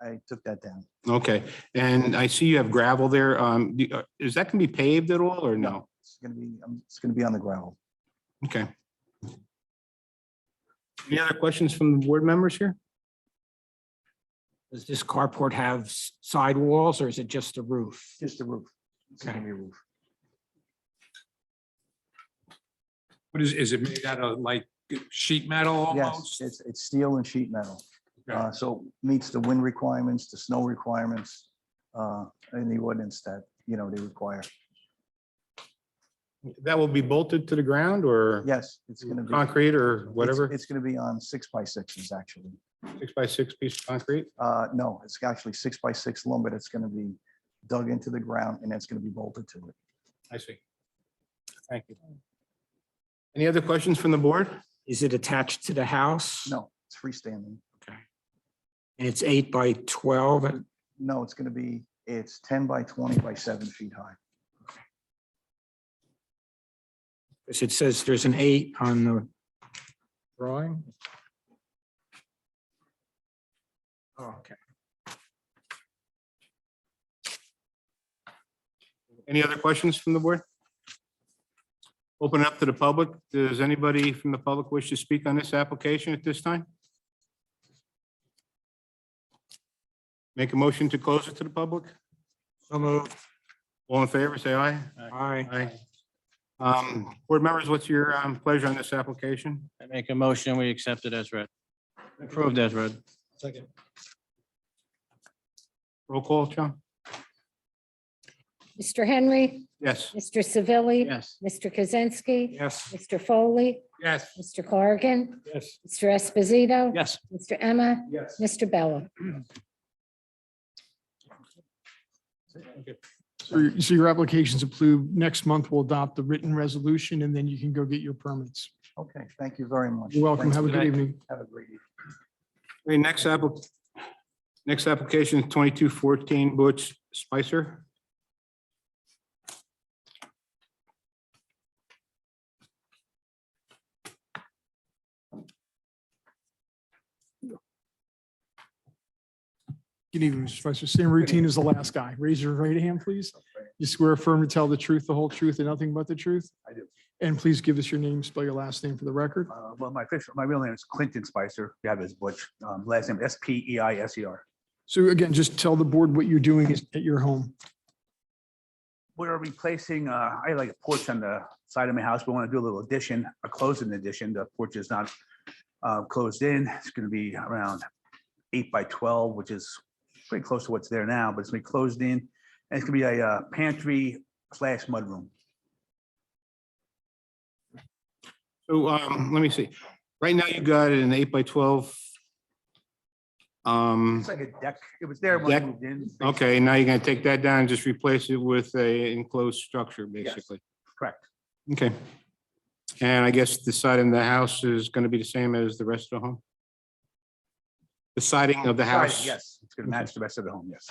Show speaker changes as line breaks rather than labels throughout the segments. I, I took that down.
Okay, and I see you have gravel there. Um, do- uh, is that gonna be paved at all or no?
It's gonna be, um, it's gonna be on the gravel.
Okay. Any other questions from the board members here?
Does this carport have s- sidewalls or is it just a roof?
Just the roof. It's gonna
Okay.
be a roof.
What is, is it made out of like sheet metal
Yes,
almost?
it's, it's steel and sheet metal.
Okay.
Uh, so meets the wind requirements, the snow requirements, uh, and the ordinance that, you know, they require.
That will be bolted to the ground or?
Yes, it's gonna be. it's-
Concrete or whatever,
It's gonna be on six by sixes, actually.
six by six piece of concrete?
Uh, no, it's actually six by six lumber that's gonna be dug into the ground and it's gonna be bolted to it.
I see. Thank you.
Mm.
Any other questions from the board?
Is it attached to the house?
No, it's freestanding.
And it's eight by 12 and
No, it's gonna be, it's ten by twenty by seven feet high.
because it says there's an eight on the drawing. Oh, Okay.
Any other questions from the board? Open it up to the public. Does anybody from the public wish to speak on this application at this time? Make a motion to close it to the public?
So moved.
All in favor, say aye.
Aye.
Aye. Um, board members, what's your um, pleasure on this application?
I make a motion, we accept it as read. Approved as read.
Roll call, John?
Mr. Henry,
Yes.
Mr. Savili,
Yes.
Mr. Kaczynski,
Yes.
Mr. Foley,
Yes.
Mr. Corrigan,
Yes.
Mr. Esposito,
Yes.
Mr. Emma,
Yes.
Mr. Bella.
So your- so your application's approved. Next month, we'll adopt the written resolution and then you can go get your permits.
Okay, thank you very much.
You're welcome.
Thanks.
Have a good evening.
Have a great evening.
Okay, next app, next application is twenty-two fourteen Butch Spicer.
Good evening, Mr. Spicer. Same routine as the last guy. Raise your right hand, please. You swear affirm to tell the truth, the whole truth, and nothing but the truth?
I do.
And please give us your name, spell your last name for the record.
Uh, Well, my official, my real name is Clinton Spicer. You have his butch, um, last name S P E I S E R.
So again, just tell the board what you're doing is- at your home.
We're replacing, uh, I like a porch on the side of my house. We want to do a little addition, a closing addition. The porch is not uh, closed in. It's going to be around eight by twelve, which is pretty close to what's there now, but it's going to be closed in. And it's going to be a uh, pantry slash mudroom.
So, um, let me see. Right now you got an eight by twelve. Um,
It's like a deck. It was there when I
Mm. Deck?
moved in.
okay, now you're gonna take that down, and just replace it with a enclosed structure, basically.
Correct.
Okay. And I guess the side of the house is gonna be the same as the rest of the home? The siding of the house?
Yes, it's going to match the rest of the home, yes.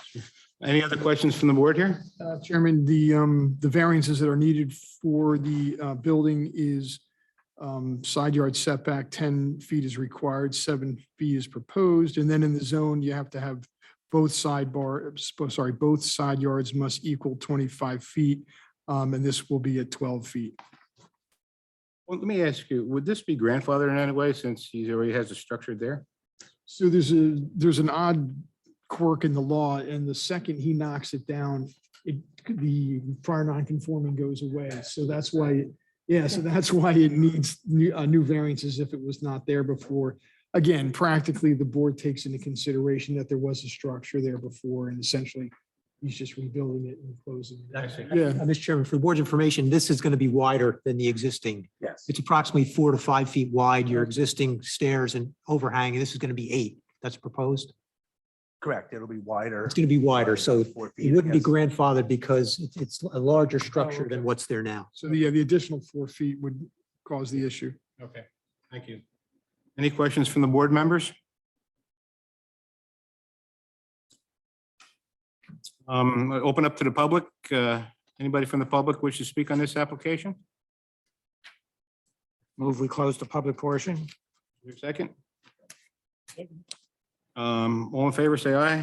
Any other questions from the board here?
Uh, Chairman, the, um, the variances that are needed for the, uh, building is, um, side yard setback, ten feet is required, seven feet is proposed, and then in the zone, you have to have both sidebar, sp- sorry, both side yards must equal twenty-five feet, um, and this will be at twelve feet.
Well, let me ask you, would this be grandfathered in any way since he already has a structure there?
So there's a, there's an odd quirk in the law, and the second he knocks it down, it, the prior non-conforming goes away. So that's why, yeah, so that's why it needs new, uh, new variances if it was not there before. Again, practically, the board takes into consideration that there was a structure there before, and essentially, he's just rebuilding it and closing. it. Yeah.
Uh, Mr. Chairman, for the board's information, this is going to be wider than the existing.
Yes.
It's approximately four to five feet wide, your existing stairs and overhang, and this is going to be eight. That's proposed.
Correct. It'll be wider.
It's going to be wider, so
Four feet,
it wouldn't be
yes.
grandfathered because it's- it's a larger structure
okay.
than what's there now.
So the, yeah, the additional four feet would cause the issue.
Okay, thank you. Any questions from the board members? Um, Open up to the public. Uh, Anybody from the public wish to speak on this application?
Move, we close the public portion.
Your second? Um, All in favor, say aye.